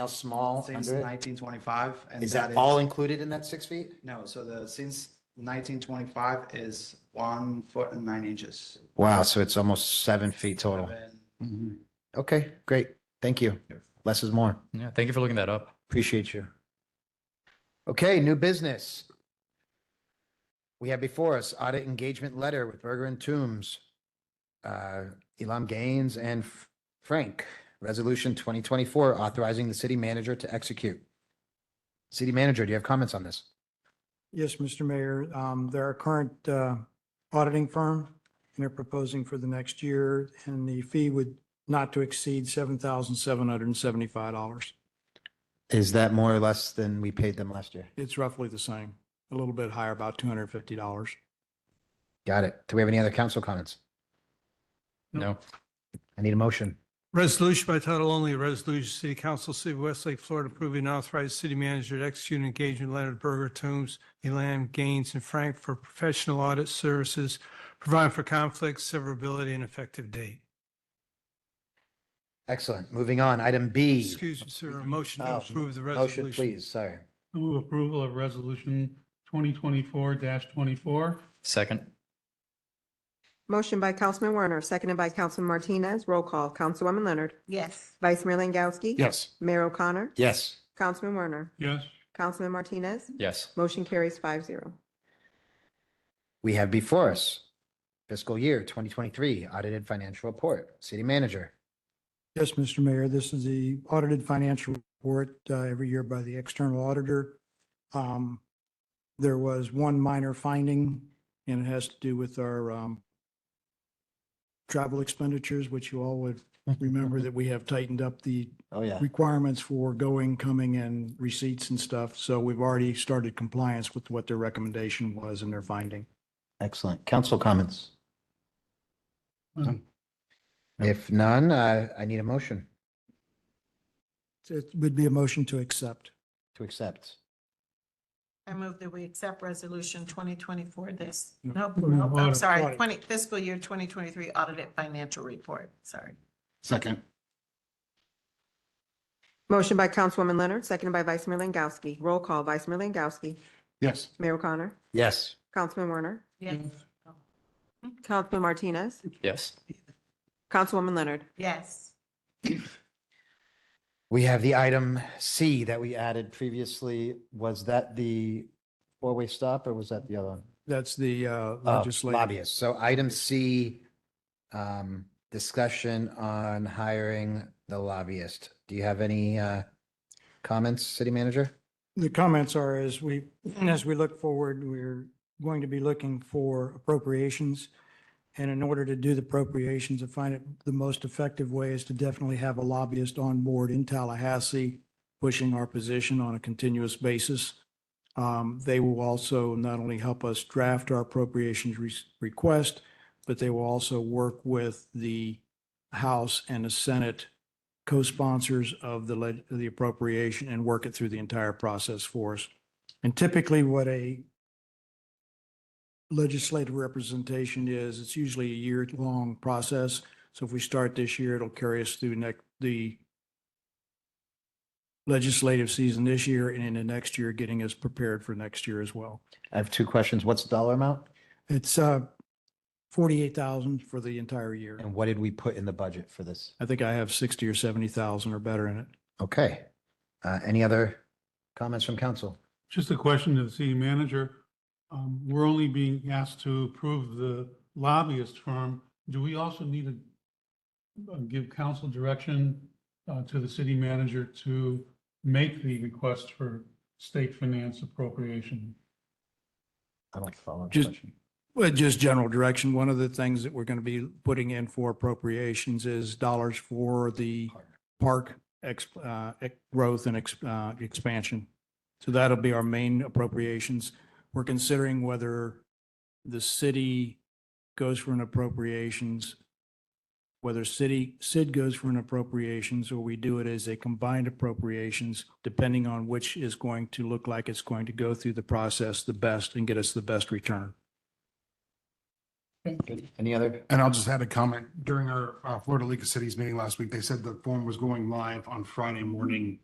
How small since under it? nineteen twenty-five. and Is that all included in that six feet? No, so the, since nineteen twenty-five is one foot and nine inches. Wow, so it's almost seven feet total. Seven- Okay, great. Thank you. Less is more. Yeah, thank you for looking that up. Appreciate you. Okay, new business. We have before us audit engagement letter with Berger and Toombs, uh, Elam Gaines and F- Frank. Resolution twenty twenty-four authorizing the city manager to execute. City manager, do you have comments on this? Yes, Mr. Mayor, um, they're our current, uh, auditing firm and they're proposing for the next year and the fee would not to exceed seven thousand seven hundred and seventy-five dollars. Is that more or less than we paid them last year? It's roughly the same, a little bit higher, about two hundred and fifty dollars. Got it. Do we have any other council comments? No, I need a motion. Resolution by title only, a resolution, City Council, City of Westlake, Florida, approving and authorized city manager to execute an engagement letter to Burger, Toombs, Elam, Gaines, and Frank for professional audit services, providing for conflicts, severability, and effective date. Excellent. Moving on. Item B. Excuse me, sir, a motion to Oh, approve the resolution. Motion, please. Sorry. Move approval of resolution twenty twenty-four twenty-four. second, Motion by Councilman Werner, seconded by Councilman Martinez. Roll call, Councilwoman Leonard. yes, Vice Mayor Langowski. Yes. Mayor O'Connor. Yes. Councilman Werner. Yes, Councilman Martinez. yes, Motion carries five zero. We have before us fiscal year 2023 audited financial report. City manager. Yes, Mr. Mayor, this is the audited financial report uh, every year by the external auditor. Um, There was one minor finding, and it has to do with our um, travel expenditures, which you all would remember that we have tightened up the Oh, yeah. requirements for going, coming, and receipts and stuff. So we've already started compliance with what their recommendation was and their finding. Excellent. Council comments. None. If none, uh, I need a motion It would be a motion to accept. to accept. I move that we accept resolution twenty twenty-four this, No. nope, No, nope, I'm audit, sorry, audit. twenty, fiscal year twenty twenty-three audited financial report, sorry. Second. Motion by Councilwoman Leonard, seconded by Vice Mayor Langowski. Roll call, Vice Mayor Langowski. Yes. Mayor O'Connor. Yes. Councilman Werner. Yes, Councilman Martinez. yes, Councilwoman Leonard. yes, We have the item C that we added previously. Was that the four-way stop or was that the other one? That's the uh, Oh, legislative. Lobbyists. So item C, um, discussion on hiring the lobbyist. Do you have any, uh, comments, city manager? The comments are as we, as we look forward, we're going to be looking for appropriations. And in order to do the appropriations, I find it the most effective way is to definitely have a lobbyist on board in Tallahassee, pushing our position on a continuous basis. Um, They will also not only help us draft our appropriations re- request, but they will also work with the House and the Senate co-sponsors of the, leg- the appropriation and work it through the entire process for us. And typically what a legislative representation is, it's usually a year-long process. So if we start this year, it'll carry us through next, the legislative season this year and into next year, getting us prepared for next year as well. I have two questions. What's the dollar amount It's, uh, forty-eight thousand for the entire year. and what did we put in the budget for this? I think I have sixty or seventy thousand or better in it. Okay. Uh, any other comments from council? just a question to the city manager. Um, we're only being asked to approve the lobbyist firm. Do we also need to uh, give council direction uh, to the city manager to make the request for state finance appropriation? I don't follow. the Just- question. Well, just general direction. One of the things that we're going to be putting in for appropriations is dollars for the park ex, uh, ex- growth and ex, uh, expansion. So that'll be our main appropriations. We're considering whether the city goes for an appropriations, whether city, Sid goes for an appropriations, or we do it as a combined appropriations, depending on which is going to look like it's going to go through the process the best and get us the best return. Any other? And I'll just add a comment. During our uh, Florida League of Cities meeting last week, they said the form was going live on Friday morning